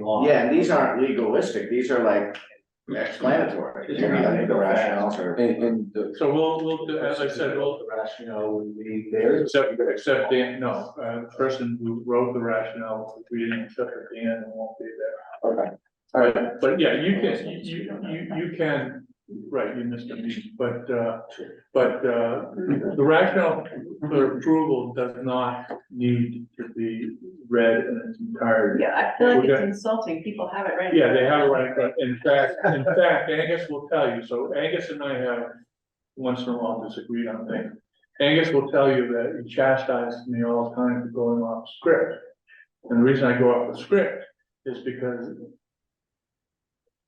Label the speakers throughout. Speaker 1: law.
Speaker 2: Yeah, and these aren't legalistic, these are like explanatory, you know, the rationales or.
Speaker 3: And, and the.
Speaker 1: So we'll, we'll, as I said, we'll,
Speaker 3: The Rationale would be there.
Speaker 1: except, except Dan, no, uh, the person who wrote the rationale, we didn't accept it, Dan won't be there.
Speaker 3: Okay, all right,
Speaker 1: But yeah, you can, you, you, you can, right, you missed a meeting, but, uh, but, uh, the rationale for approval does not need to be read in its entirety.
Speaker 4: Yeah, I feel like
Speaker 1: We're
Speaker 4: it's
Speaker 1: gonna-
Speaker 4: insulting, people have it right.
Speaker 1: Yeah, they have it right, in front. in fact, in fact, Angus will tell you, so Angus and I have once in a while disagreed on things. Angus will tell you that he chastises me all the time for going off script. And the reason I go off the script is because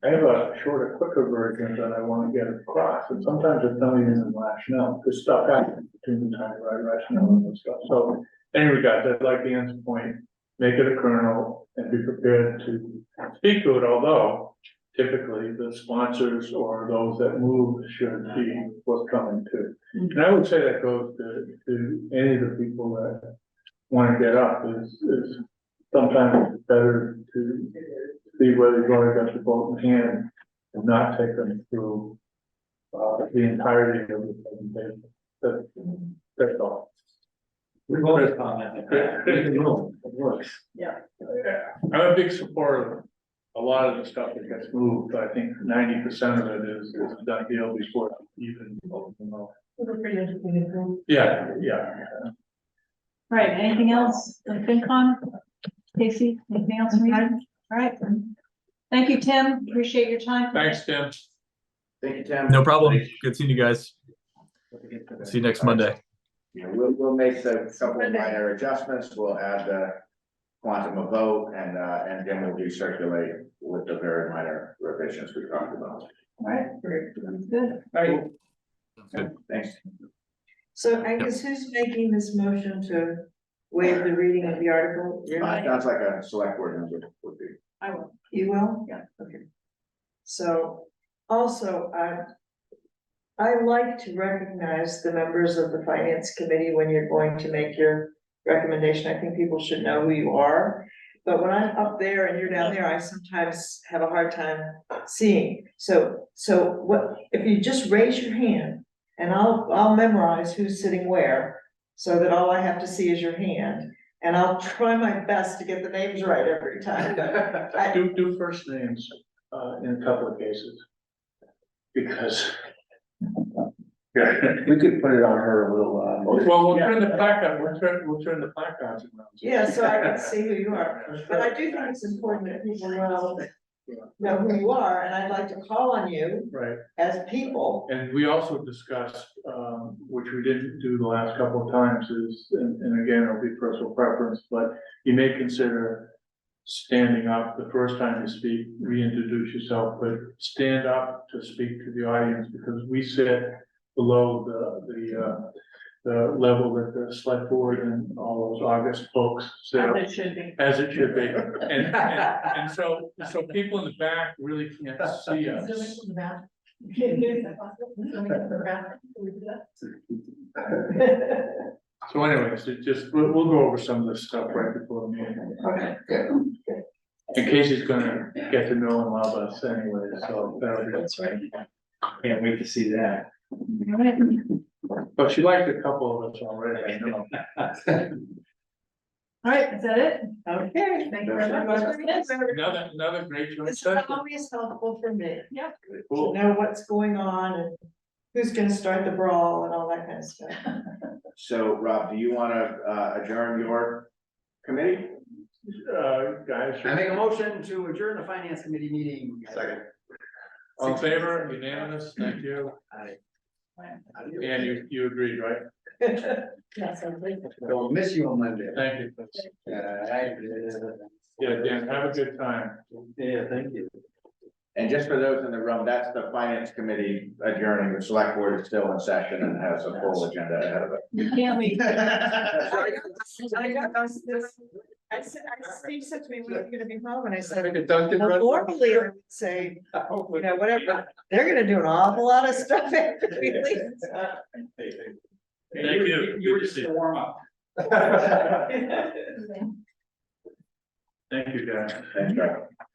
Speaker 1: I have a shorter, quicker version that I wanna get across, and sometimes it's not even in rationale, because stuff happens between the time I write rationale and stuff, so. Anyway, guys, I'd like Dan's point, make it a kernel and be prepared to speak to it, although typically the sponsors or those that move should be forthcoming too. And I would say that goes to, to any of the people that wanna get up, is, is sometimes it's better to see whether you've already got your vote in hand and not take them through uh, the entirety of the presentation, that, that's all.
Speaker 5: We voted on that. Leave the room. It works.
Speaker 1: Yeah, I'm a big supporter of a lot of the stuff that gets moved, I think ninety percent of it is, is a done deal before it even, you know. Yeah, yeah,
Speaker 4: Right, anything else on FinCon? Casey, anything else from you? All right. Thank you, Tim. Appreciate your time.
Speaker 1: thanks, Tim.
Speaker 2: Thank you, Tim.
Speaker 6: No problem. Good seeing you guys. See you next Monday.
Speaker 2: Yeah, We'll, we'll make the couple of
Speaker 4: Monday.
Speaker 2: minor adjustments, we'll add the quantum of vote and, uh, and then we'll recirculate with the very minor revisions we talked about.
Speaker 4: All right, sounds good.
Speaker 2: Right.
Speaker 6: Good.
Speaker 2: Thanks.
Speaker 7: So I guess who's making this motion to waive the reading of the article? You're
Speaker 2: Uh,
Speaker 7: not-
Speaker 2: Sounds like a select board member would be.
Speaker 4: I will.
Speaker 7: You will?
Speaker 4: Yeah.
Speaker 7: Okay. So also, I, I like to recognize the members of the finance committee when you're going to make your recommendation. I think people should know who you are. But when I'm up there and you're down there, I sometimes have a hard time seeing. So, so what, if you just raise your hand and I'll, I'll memorize who's sitting where so that all I have to see is your hand. And I'll try my best to get the names right every time. I-
Speaker 1: Do, do first names, uh, in a couple of cases. Because. Well,
Speaker 3: we could put it on her a little, uh,
Speaker 1: we'll turn the placards, we'll turn, we'll turn the placards around.
Speaker 7: Yeah, so I can see who you are, but I do think it's important that people know, know who you are, and I'd like to call on you
Speaker 1: Right.
Speaker 7: as people.
Speaker 1: And we also discussed, um, which we didn't do the last couple of times is, and, and again, it'll be personal preference, but you may consider standing up the first time you speak, reintroduce yourself, but stand up to speak to the audience because we sit below the, the, uh, the level that the select board and all those August folks sit.
Speaker 4: As it should be.
Speaker 1: As it should be. And, and, and so, so people in the back really can't see us. So anyways, it just, we'll, we'll go over some of this stuff right before the meeting.
Speaker 7: Okay.
Speaker 1: And Casey's gonna get to know and love us anyway, so that'll be,
Speaker 7: That's right.
Speaker 5: Can't wait to see that.
Speaker 4: All right.
Speaker 1: but she liked a couple of us already, I know.
Speaker 4: All right, is that it?
Speaker 7: Okay.
Speaker 4: Thank you very much. Yes.
Speaker 1: Another, another great joint
Speaker 7: It's
Speaker 1: session.
Speaker 7: always helpful for me to
Speaker 1: Cool.
Speaker 7: know what's going on and who's gonna start the brawl and all that kind of stuff.
Speaker 2: So Rob, do you wanna, uh, adjourn your committee?
Speaker 1: Uh, guys,
Speaker 5: I make a motion to adjourn the finance committee meeting.
Speaker 1: all in favor, unanimous, thank you. And you, you agreed, right?
Speaker 5: I'll miss you on Monday.
Speaker 1: Thank you.
Speaker 5: Yeah, I-
Speaker 1: Yeah, Dan, have a good time.
Speaker 5: Yeah, thank you.
Speaker 2: And just for those in the room, that's the finance committee adjourning, the select board is still in session and has a full agenda ahead of it.
Speaker 4: You can't leave.
Speaker 7: I got this- this- I said, I, Steve said to me, when are you gonna be home? And I said,
Speaker 1: Conducted
Speaker 7: "Well,
Speaker 1: right-
Speaker 7: normally I would say, uh, oh, you know, whatever, they're gonna do an awful lot of stuff after we leave.
Speaker 1: Thank you.
Speaker 5: You were just a warm up.
Speaker 8: Thank you, guys.
Speaker 1: Thanks, Greg.